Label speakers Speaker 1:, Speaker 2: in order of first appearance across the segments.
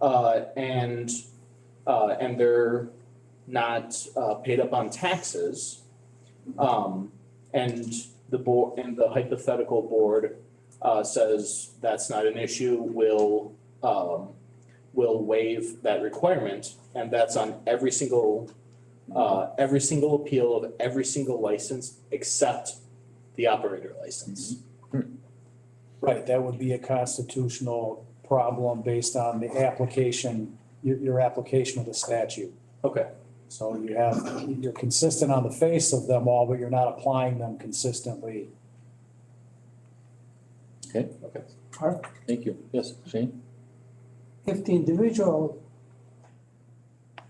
Speaker 1: uh, and, uh, and they're not, uh, paid up on taxes. Um, and the board, and the hypothetical board, uh, says that's not an issue, will, um, will waive that requirement, and that's on every single, uh, every single appeal of every single license except the operator license.
Speaker 2: Right, that would be a constitutional problem based on the application, your, your application of the statute.
Speaker 1: Okay.
Speaker 2: So you have, you're consistent on the face of them all, but you're not applying them consistently.
Speaker 3: Thank you. Yes, Shane?
Speaker 4: if the individual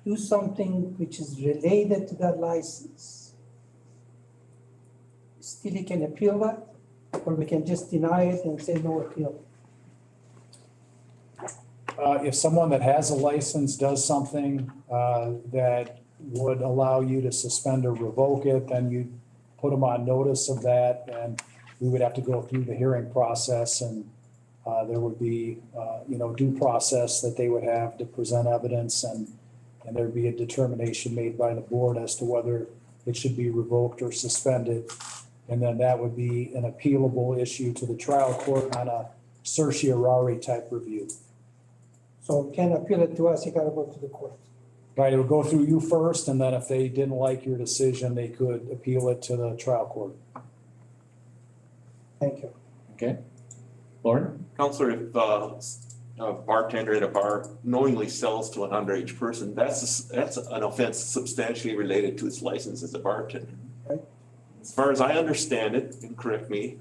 Speaker 4: do something which is related to that license, still he can appeal that, or we can just deny it and say no appeal.
Speaker 2: Uh, if someone that has a license does something, uh, that would allow you to suspend or revoke it, then you put them on notice of that, and we would have to go through the hearing process, and, uh, there would be, uh, you know, due process that they would have to present evidence, and, and there'd be a determination made by the board as to whether it should be revoked or suspended. And then that would be an appealable issue to the trial court on a certiorari type review.
Speaker 4: So he can appeal it to us, he gotta go to the court.
Speaker 2: Right, it would go through you first, and then if they didn't like your decision, they could appeal it to the trial court.
Speaker 4: Thank you.
Speaker 3: Okay. Lauren?
Speaker 5: Counselor, if uh, s- a bartender at a bar knowingly sells to an underage person, that's, a s- that's an offense substantially related to his license as a bartender.
Speaker 4: Right.
Speaker 5: As far as I understand it, and correct me,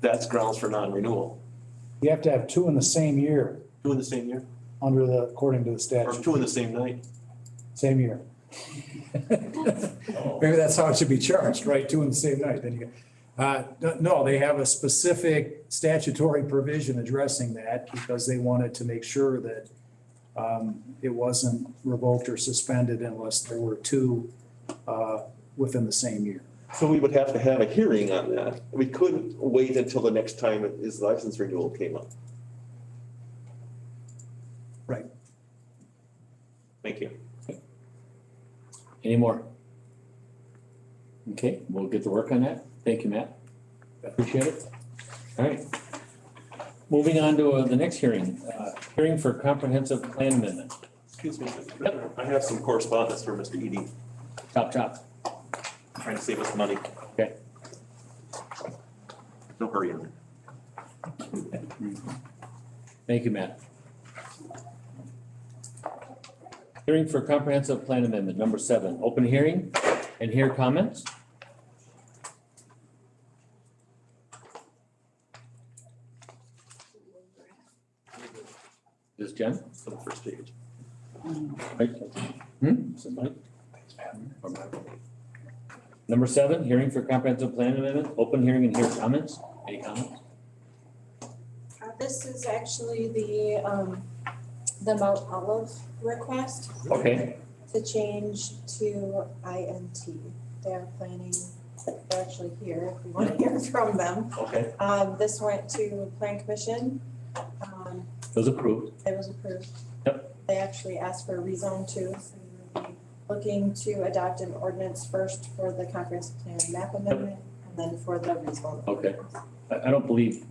Speaker 5: that's grounds for non-renewal.
Speaker 2: You have to have two in the same year,
Speaker 5: Two in the same year,
Speaker 2: under the, according to the
Speaker 5: or
Speaker 2: statute,
Speaker 5: two in the same night.
Speaker 2: same year. Maybe that's how it should be charged, right, two in the same night, then you, uh, no, they have a specific statutory provision addressing that, because they wanted to make sure that um, it wasn't revoked or suspended unless there were two uh, within the same year.
Speaker 5: So we would have to have a hearing on that. We couldn't wait until the next time his license renewal came up.
Speaker 2: Right.
Speaker 5: Thank you.
Speaker 3: Any more? Okay, we'll get to work on that. Thank you, Matt. Appreciate it. All right. Moving on to uh, the next hearing, uh, hearing for comprehensive plan amendment.
Speaker 5: Excuse me, Mr. President, I have some correspondence for Mr. Edie,
Speaker 3: Chop chop.
Speaker 5: trying to save us money.
Speaker 3: Okay.
Speaker 5: No hurry on it.
Speaker 3: Thank you, Matt. Hearing for comprehensive plan amendment, number seven, open hearing and hear comments. This is Jen?
Speaker 5: It's on the first page.
Speaker 3: Right. Hmm? Is it Mike? Number seven, hearing for comprehensive plan amendment, open hearing and hear comments. Any comments?
Speaker 6: Uh, This is actually the, um, the Mount Olive request
Speaker 3: Okay,
Speaker 6: to change to INT. They're planning, they're actually here if we want to hear from them.
Speaker 3: okay,
Speaker 6: Um, this went to Plan Commission. Um,
Speaker 3: it was approved.
Speaker 6: it was approved. They actually asked for a rezone too, so we'll be looking to adopt an ordinance first for the comprehensive plan map amendment and then for the rezone.
Speaker 3: Okay. I, I don't believe,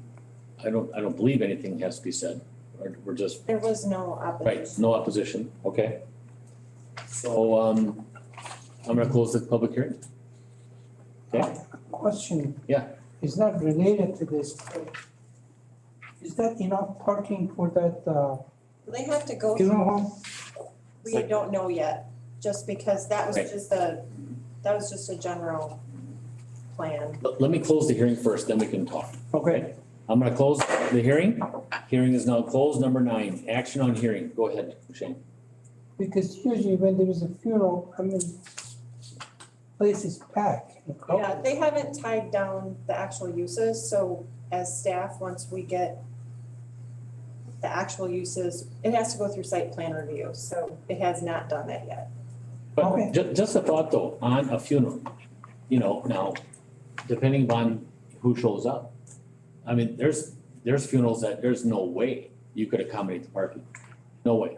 Speaker 3: I don't, I don't believe anything has to be said. We're- We're just
Speaker 6: There was no
Speaker 3: Right,
Speaker 6: opposition.
Speaker 3: no opposition, okay. So, um, I'm gonna close this public hearing. Okay,
Speaker 4: Question.
Speaker 3: Yeah.
Speaker 4: Is not related to this, but is that enough parking for that, uh,
Speaker 6: They have to go
Speaker 4: funeral home?
Speaker 6: We don't know yet, just because that was
Speaker 3: Right.
Speaker 6: just a, that was just a general plan.
Speaker 3: let, let me close the hearing first, then we can talk.
Speaker 4: Okay.
Speaker 3: I'm gonna close the hearing. Hearing is now closed. Number nine, action on hearing. Go ahead, Shane.
Speaker 4: Because usually when there is a funeral, I mean, place is packed and
Speaker 6: Yeah,
Speaker 4: crowded.
Speaker 6: they haven't tied down the actual uses, so as staff, once we get the actual uses, it has to go through site plan review, so it has not done that yet.
Speaker 3: But
Speaker 4: Okay.
Speaker 3: ju- just a thought though, on a funeral, you know, now, depending upon who shows up. I mean, there's, there's funerals that there's no way you could accommodate the parking. No way.